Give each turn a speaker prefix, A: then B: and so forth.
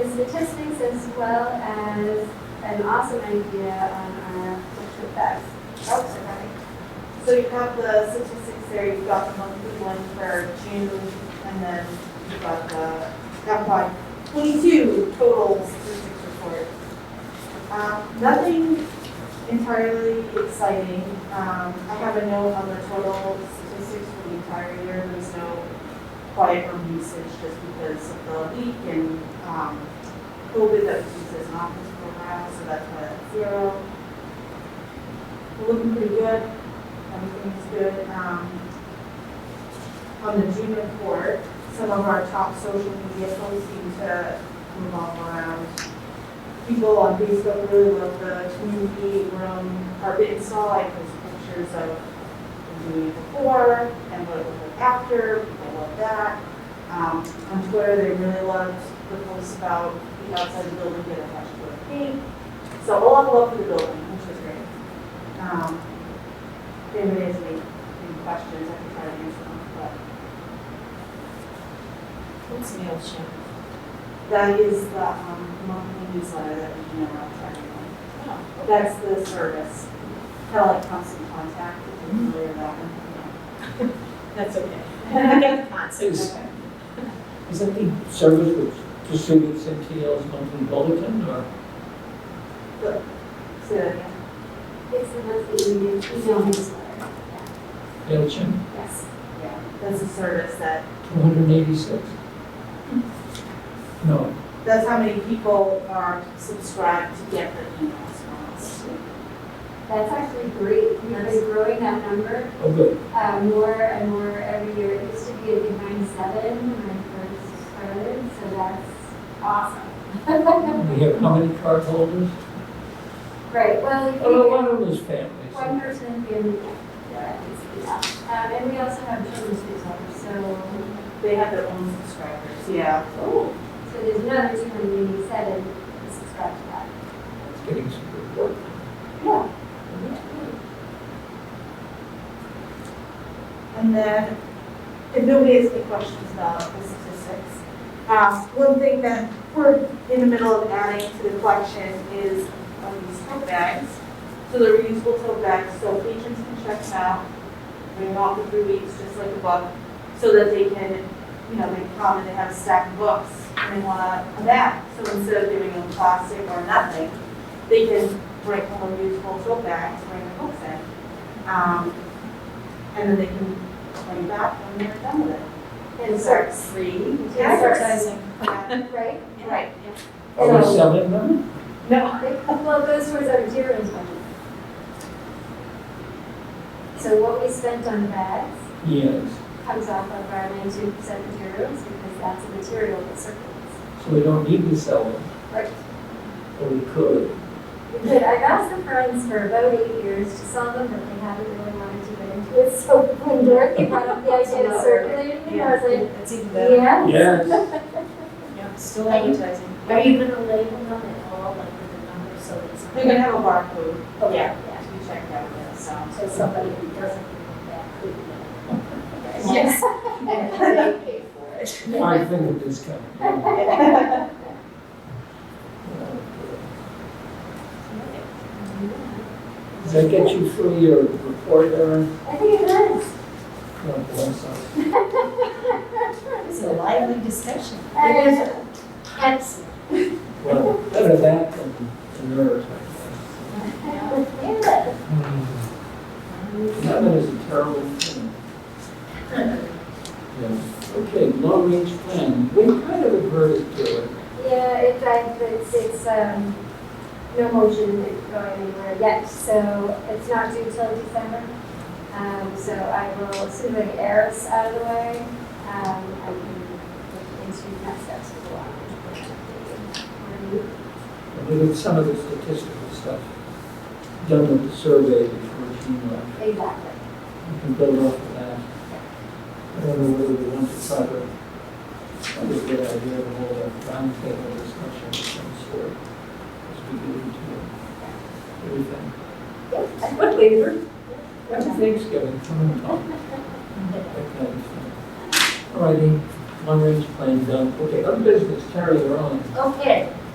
A: statistics as well as an awesome idea on our cultural facts.
B: Oh, sorry. So you have the statistics there, you've got the monthly one for June, and then you've got the FY twenty-two total statistics report. Um, nothing entirely exciting, um, I have a note on the total statistics for the entire year, there's no quiet room usage just because of the leak and, um, COVID that was used as an office program, so that's why that's zero looking pretty good, everything's good. Um, On the June report, some of our top social media posts seem to revolve around people on Facebook really love the community room carpet install, I post pictures of doing it before and what it looked like after, people love that. Um, On Twitter, they really loved the posts about the outside of the building, get a hashtag pink. So a lot of love for the building, which was great. Um, If anybody has any any questions, I can try to answer them, but
C: What's MailChimp?
B: that is the um, monthly newsletter that we email out to everyone.
C: Oh,
B: That's the service, kind of like constant contact, if you're familiar with that one.
C: That's okay. I get the concept.
D: Is- Isn't the service which distributes MTL's monthly bulletin or?
B: So, yeah.
A: It's the monthly email email newsletter.
D: MailChimp,
A: Yes.
B: yeah, that's a service that,
D: 286? No,
B: that's how many people are subscribed to get the emails from us.
A: That's actually great. We've been growing that number
D: oh, good.
A: uh, more and more every year. It used to be a behind seven when I first started, so that's awesome.
D: We have how many card holders?
A: Right, well, if
D: Oh,
A: you-
D: one of those families.
A: One person family, yeah, it's enough. Um, and we also have children's newsletters, so,
B: They have their own subscribers, yeah. Oh.
A: so there's another two hundred and eighty-seven to subscribe to that.
D: It's getting some good work.
B: Yeah. And then, if nobody has any questions about the statistics, um, one thing that we're in the middle of adding to the collection is reusable bags. So the reusable tote bags, so patrons can check them out, bring them out for three weeks, just like a book, so that they can, you know, they come and they have a stack of books and they want a bag. So instead of giving them plastic or nothing, they can bring home a reusable tote bag, to bring their books in. Um, and then they can bring it back when they're done with it.
A: And so,
B: free.
A: uh, right?
B: Right.
D: Are we
A: So-
D: selling them?
C: No.
A: They- Well, it goes towards our dearest budget. So what we spent on bags
D: Yes.
A: comes off of our nineteen percent materials because that's a material that circulates.
D: So we don't need to sell them,
A: Right.
D: but we could.
A: But I've asked the friends for about eight years to sell them, but they haven't really wanted to get into it. So when Dorothy brought up the idea of circulating them, I was like,
C: That's even better.
A: yeah.
D: Yes.
C: Yeah, still advertising.
E: Are you gonna label them at all, like with a number, so that it's
B: They're gonna have a barcode.
E: Okay.
B: To be checked out, yeah, so.
E: so somebody who doesn't know that could know?
C: Yes.
E: And they pay for it.
D: I think of this company. Does that get you through your report, Aaron?
A: I think it is.
D: God bless us.
C: It's a lively discussion.
A: And
E: Excellent.
D: Well, better that than the nerves, I guess.
A: yeah,
D: That is a terrible thing. Yes. Okay, long-range plan, we kind of adverted to it.
A: yeah, in fact, it's, it's, um, no motion going anywhere yet, so it's not due till December. Um, so I will, as soon as I get Eris out of the way, um, I can look into next steps for the launch.
D: And we did some of the statistical stuff done with the survey before she left.
A: Exactly.
D: We can build off of that. I don't know whether we want to try to, that would be a good idea to hold a roundtable discussion of some sort as we get into everything.
C: What labor?
D: Happy Thanksgiving. coming up. That kind of thing. All righty, long range plan done. Okay, other business, Terry, you're on.
E: Okay,